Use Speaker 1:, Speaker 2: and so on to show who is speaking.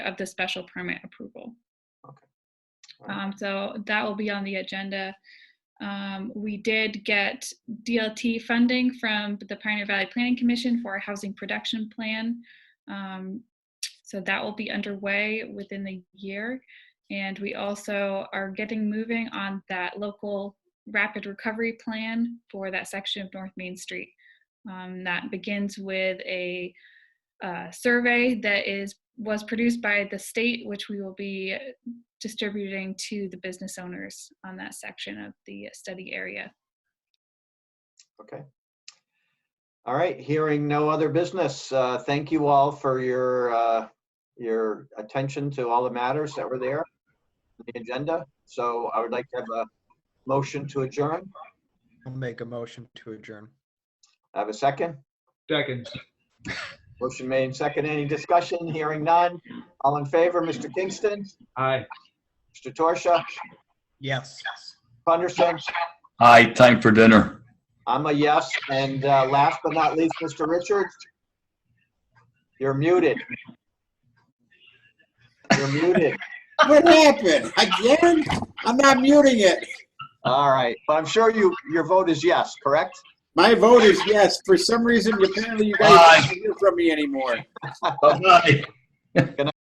Speaker 1: of the special permit approval.
Speaker 2: Okay. All right.
Speaker 1: Um, so that will be on the agenda. Um, we did get DLT funding from the Pioneer Valley Planning Commission for a housing production plan. Um, so that will be underway within the year. And we also are getting moving on that local rapid recovery plan for that section of North Main Street. Um, that begins with a uh, survey that is was produced by the state, which we will be distributing to the business owners on that section of the study area.
Speaker 2: Okay. All right, hearing no other business, uh, thank you all for your, uh, your attention to all the matters that were there, on the agenda. So I would like to have a motion to adjourn.
Speaker 3: I'll make a motion to adjourn.
Speaker 2: I Have a second?
Speaker 4: Second.
Speaker 2: Motion made and second. Any discussion? Hearing none. All in favor, Mr. Kingston,
Speaker 4: Aye.
Speaker 2: Mr. Torsia,
Speaker 3: Yes.
Speaker 2: Punderson?
Speaker 5: Hi, time for dinner.
Speaker 2: I'm a yes. And uh, last but not least, Mr. Richards? You're muted. You're muted.
Speaker 6: What happened? Again? I'm not muting it.
Speaker 2: All right, but I'm sure you, your vote is yes, correct?
Speaker 6: My vote is yes. For some reason, apparently you guys don't hear from me anymore.
Speaker 5: Bye-bye.